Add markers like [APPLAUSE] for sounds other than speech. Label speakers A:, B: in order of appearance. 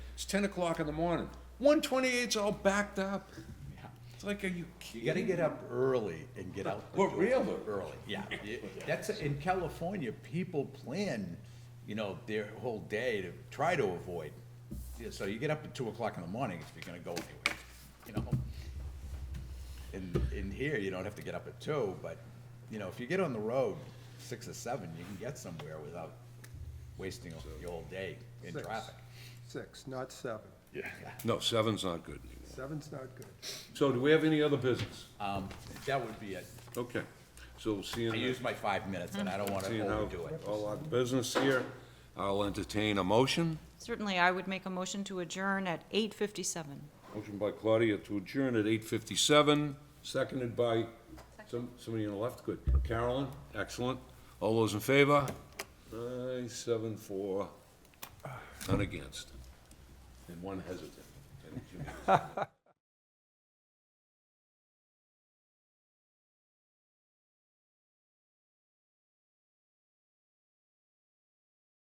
A: It's ten o'clock in the morning. One twenty-eight's all backed up.
B: Yeah.
A: It's like, are you
B: You
A: kidding?
B: gotta get up early and get out the
A: Well,
B: door.
A: really?
B: Early,
A: [LAUGHS]
B: yeah. You- That's, in California, people plan, you know, their whole day to try to avoid. Yeah, So you get up at two o'clock in the morning if you're gonna go anywhere, you know? In, in here, you don't have to get up at two, but, you know, if you get on the road six or seven, you can get somewhere without wasting the whole day in
C: Six.
B: traffic.
C: Six, not seven.
A: No, seven's not good anymore.
C: Seven's not good.
A: So do we have any other business?
B: Um, that would be it.
A: Okay, so we'll see you
B: I
A: in the.
B: used my five minutes and I don't wanna
A: Seeing how
B: overdo it.
A: all our business here, I'll entertain a motion.
D: Certainly, I would make a motion to adjourn at 8:57.
A: Motion by Claudia to adjourn at eight fifty-seven, seconded by some, somebody on the left, good. Carolyn, excellent. All those in favor? Aye, seven, four, none against, and one hesitant.